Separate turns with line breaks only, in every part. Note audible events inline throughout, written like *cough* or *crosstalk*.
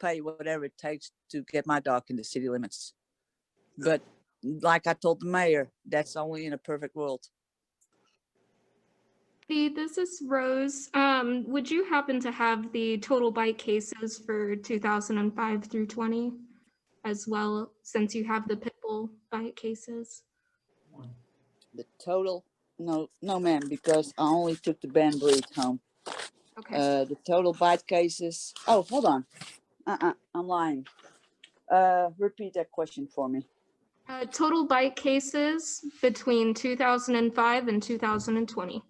pay whatever it takes to get my dog in the city limits. But like I told the mayor, that's only in a perfect world.
Hey, this is Rose. Um, would you happen to have the total bite cases for two thousand and five through twenty? As well, since you have the pit bull bite cases?
The total, no, no ma'am, because I only took the banned breed home.
Okay,
Uh, the total bite cases, oh, hold on. Uh-uh, I'm lying. Uh, repeat that question for me.
uh, total bite cases between two thousand and five and two thousand and twenty.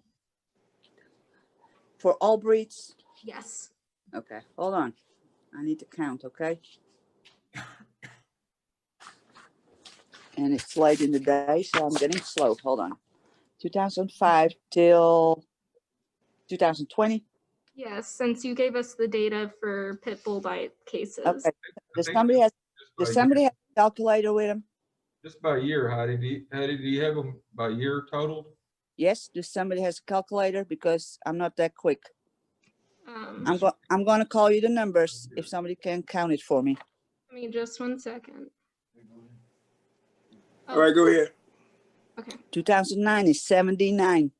For all breeds?
Yes,
Okay, hold on. I need to count, okay? And it's late in the day, so I'm getting slow. Hold on. 2005 till 2020.
yes, since you gave us the data for pit bull bite cases.
Okay. Does
think
somebody has,
By
does
year-
somebody have a calculator with them?
Just by year, Heidi, do you, Heidi, do you have them by year totaled?
Yes, does somebody has a calculator? Because I'm not that quick.
Um,
I'm go, I'm gonna call you the numbers if somebody can count it for me.
Give me just one second.
All right, go ahead.
2009 is 79.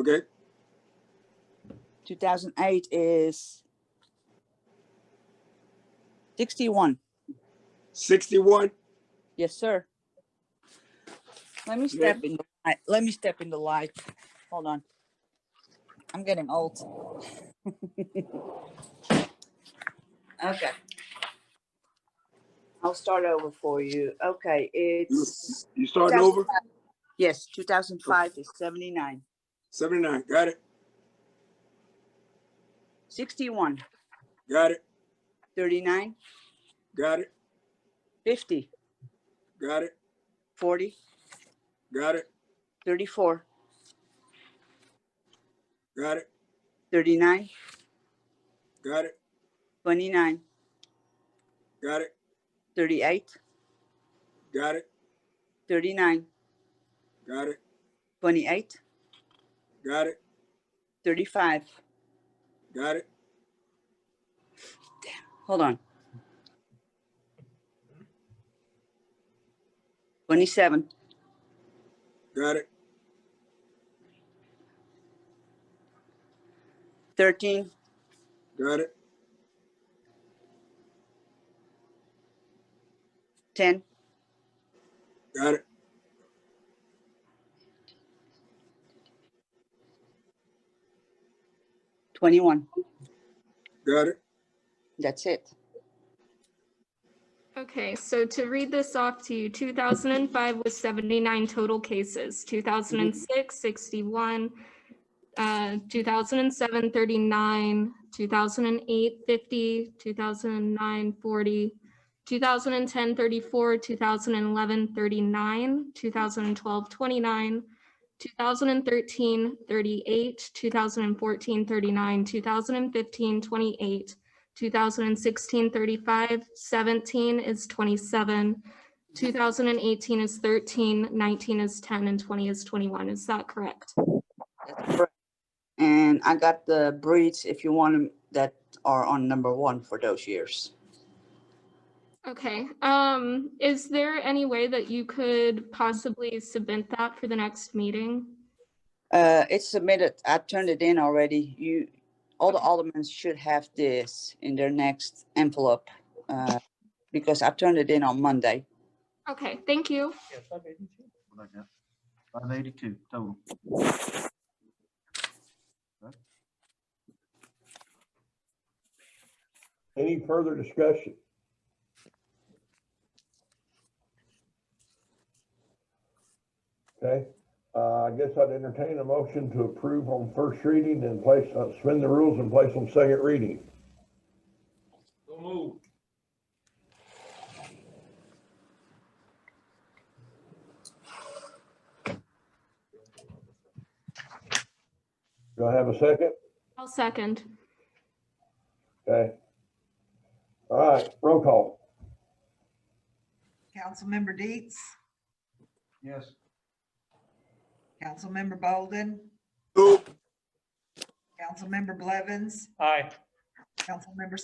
Okay,
2008 is 61.
sixty-one.
Yes, sir. Let me
Yeah.
step in, the light. let me step in the light. Hold on. I'm getting old. *laughs* Okay. I'll start over for you. Okay, it's,
You starting over?
yes, 2005 is 79,
Seventy-nine. Got it.
61,
Got it.
39,
Got it.
50,
Got it.
40,
Got it.
34,
Got it.
39,
Got it.
29,
Got it.
38,
Got it.
39,
Got it.
28,
Got it.
35.
Got it.
Hold on. 27,
Got it.
13,
Got it.
10,
Got it.
21.
Got it.
That's it.
Okay, so to read this off to you, 2005 was 79 total cases, 2006, 61, uh, 2007, 39, 2008, 50, 2009, 40, 2010, 34, 2011, 39, 2012, 29, 2013, 38, 2014, 39, 2015, 28, 2016, 35, 17 is 27, 2018 is 13, 19 is 10, and 20 is 21. Is that correct?
That's correct. And I got the breeds, if you want them, that are on number one for those years.
Okay. Um, is there any way that you could possibly submit that for the next meeting?
Uh, It's submitted, I turned it in already. You, all the aldermen should have this in their next envelope uh, because I turned it in on Monday.
Okay, thank you.
Yeah, five eighty-two. Like that. Five eighty-two total.
Any further discussion? Okay, uh, I guess I'd entertain a motion to approve on first reading and place, uh, suspend the rules and place on second reading.
Don't move.
Do I have a second?
I'll second.
Okay. All right, roll call.
Councilmember Deets,
Yes.
Councilmember Bolden,
Move.
Councilmember Blevins,
Aye.
Councilmember